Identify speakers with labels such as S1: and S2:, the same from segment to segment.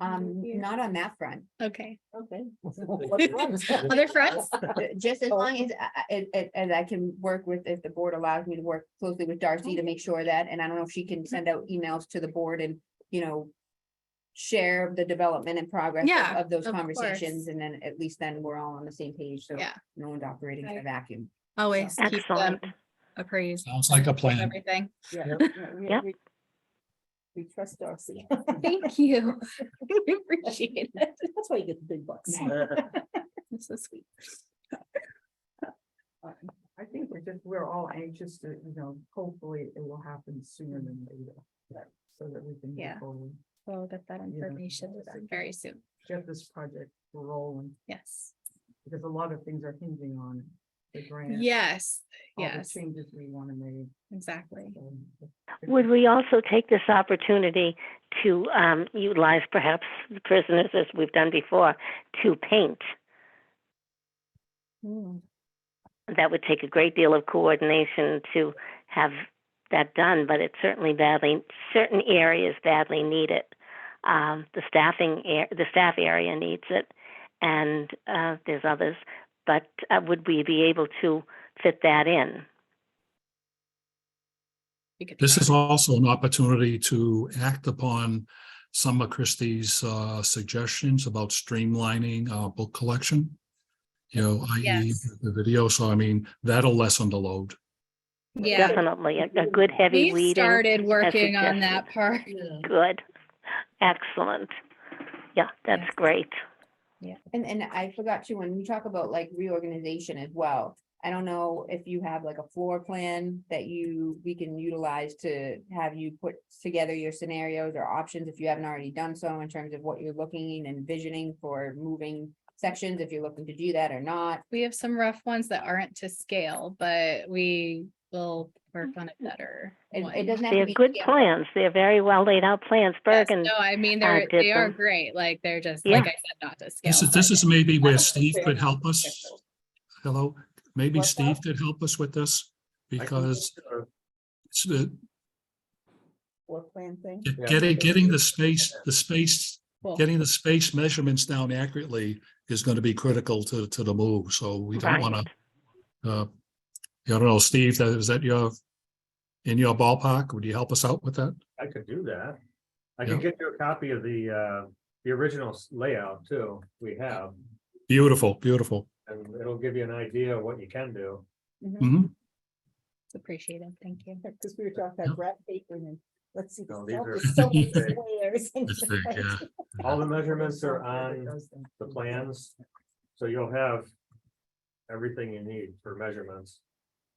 S1: Um, not on that front,
S2: Okay,
S3: Okay.
S2: other fronts?
S1: Uh, just as
S3: Oh.
S1: long as, I- I- it- it- and I can work with, if the board allows me to work closely with Darcy
S3: Oh.
S1: to make sure that, and I don't know if she can send out emails to the board and, you know. Share the development and progress of-
S2: Yeah,
S1: of those
S2: of
S1: conversations,
S2: course.
S1: and then at least then we're all on the same page, so.
S2: Yeah.
S1: No one's operating in a
S2: Right.
S1: vacuum.
S2: Always keep them
S4: Excellent. Mm.
S2: appraised
S5: Sounds like a
S2: of
S5: plan.
S2: everything.
S3: Yeah, yeah, we-
S4: Yep.
S3: we- We trust Darcy.
S2: Thank you. We Appreciate it.
S3: That's why you get the big bucks.
S2: That's so sweet.
S6: I think we're just, we're all anxious to, you know, hopefully it will happen sooner than later. So that we can. move
S2: Yeah.
S6: forward,
S2: We'll get that
S6: Yeah.
S2: information to them very soon.
S6: Get this project rolling,
S2: Yes.
S6: because a lot of things are hinging on the grant.
S2: Yes,
S6: all the
S2: yes,
S6: Changes we want to make.
S2: exactly.
S6: so-
S4: Would we also take this opportunity to um, utilize perhaps the prisoners, as we've done before, to paint?
S2: Hmm.
S4: That would take a great deal of coordination to have that done, but it's certainly badly, certain areas badly need it. Um, the staffing, ar- the staff area needs it, and uh, there's others. But uh, would we be able to fit that in?
S2: We could
S5: This
S2: try.
S5: is also an opportunity to act upon some of Christie's uh, suggestions about streamlining our book collection. You know, i.e.
S2: Yes.
S5: the video, so I mean, that'll lessen the load.
S2: Yeah,
S4: Definitely, a, a good
S2: we
S4: heavy reading.
S2: started working on
S4: suggested.
S2: that part.
S3: Yeah.
S4: Good. Excellent. Yeah, that's
S2: Yes.
S4: great.
S1: And, and I forgot to, when we talk about like reorganization as well, I don't know if you have like a floor plan that you, we can utilize to have you put together your scenarios or options if you haven't already done so in terms of what you're looking and envisioning for moving sections, if you're looking to do that or not.
S2: We have some rough ones that aren't to scale, but we will work on it better.
S1: It,
S2: one.
S1: it doesn't have to
S4: They're
S1: be.
S4: good
S1: scaled.
S4: plans. They're very well laid out plans,
S2: Yes,
S4: Bergen.
S2: No, I mean,
S4: uh,
S2: they're,
S4: did
S2: they are
S4: them.
S2: great. Like, they're just, like I said, not to scale.
S5: This is,
S2: but
S5: this is maybe
S3: I
S5: where
S3: don't think
S5: Steve
S3: they
S5: could
S3: are
S5: help us.
S3: official.
S5: Hello, maybe
S3: What's
S5: Steve
S3: that?
S5: could help us with this
S7: I can
S5: because
S7: consider-
S5: it's the-
S3: Floor plan thing.
S5: get-
S7: Yeah.
S5: getting, getting the space, the space,
S2: cool.
S5: getting the space measurements down accurately is going to be critical to, to the move. So we don't want to
S4: Right.
S5: Uh, yeah, I don't know, Steve, that, is that your, in your ballpark? Would you help us out with that?
S7: I could do that. I
S5: Yeah.
S7: can get you a copy of the, uh, the original s- layout too, we have,
S5: Beautiful, beautiful.
S7: and it'll give you an idea of what you can do.
S5: Mhm.
S2: It's appreciated. Thank you.
S3: Because we were talking about graph paper and then, let's see.
S7: No,
S3: the
S7: these
S3: cell- the cell
S7: are-
S5: It's
S7: big.
S3: squares and
S5: It's big,
S3: stuff.
S5: yeah.
S7: All the measurements are
S6: It
S7: on
S6: does them.
S7: the plans, so you'll have everything you need for measurements.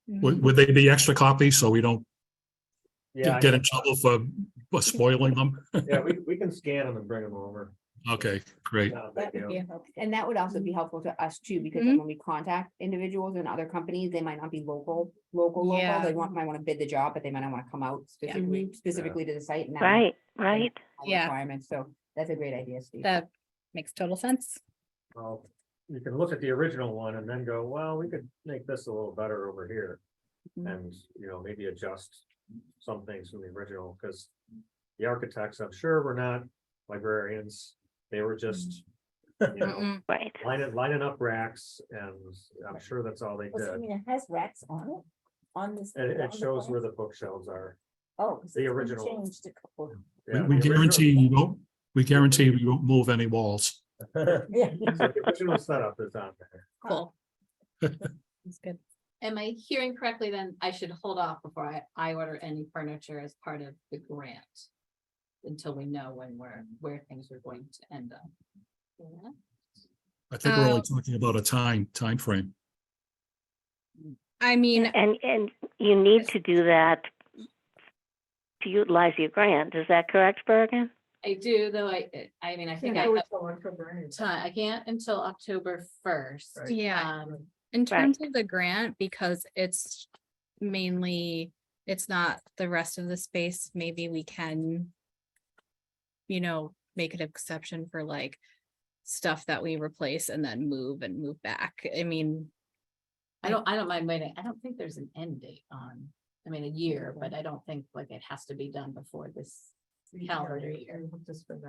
S5: Would, would they be extra copies so we don't
S7: Yeah, I
S5: get in
S7: can-
S5: trouble for for spoiling them?
S7: yeah, we, we can scan them and bring them over.
S5: Okay, great.
S7: Not a big
S3: That would
S7: deal.
S3: be helpful.
S1: And that would also be
S2: Mm-hmm.
S1: helpful to us too, because then when we contact individuals and other companies, they might not be local, local, local.
S2: Yeah. Mm-hmm.
S1: They want, might want to bid the job, but they might not want to come out specifically, specifically to the site. and that might
S4: Right, right.
S1: all
S2: Yeah.
S1: Requirements, so that's a great idea, Steve.
S2: That makes total sense.
S7: Well, you can look at the original one and then go, well, we could make this a little better over here.
S2: Mhm.
S7: And, uh, you know, maybe adjust some things from the original, because the architects, I'm sure were not librarians. They were just, you know,
S2: Mm-mm.
S4: Right.
S7: lining, lining up racks and I'm sure that's all they
S3: Well, I
S7: did.
S3: mean, it has racks on it, on this. on
S7: And it
S3: the
S7: shows
S3: plan.
S7: where the bookshelves are.
S3: Oh. 'cause
S7: the
S3: it's been
S7: original-
S3: Changed a couple.
S5: We-
S7: Yeah,
S5: We
S7: the original-
S5: guarantee you won't, we guarantee we won't move any walls.
S7: So
S3: Yeah.
S7: the Original setup is on there.
S2: Cool. That's good.
S8: Am I hearing correctly then I should hold off before I, I order any furniture as part of the grant? Until we know when we're, where things are going to end up. Yeah.
S5: I think we're
S2: Uh,
S5: only talking about a time, time frame.
S2: I mean,
S4: And, and you need to do that to utilize your grant. Is that correct, Bergen?
S8: I do, though, I, I mean, I think I
S6: Yeah, we're
S8: have
S6: going for grants.
S8: time, I can't until October first.
S6: Right.
S2: yeah,
S8: Um,
S2: in
S4: Right.
S2: terms of the grant, because it's mainly, it's not the rest of the space, maybe we can. You know, make an exception for like stuff that we replace and then move and move back. I mean,
S8: I don't, I don't mind waiting, I don't think there's an end date on, I mean, a year, but I don't think like it has to be done before this
S6: Yeah,
S8: calendar
S6: we-
S8: year.
S6: we hope to spend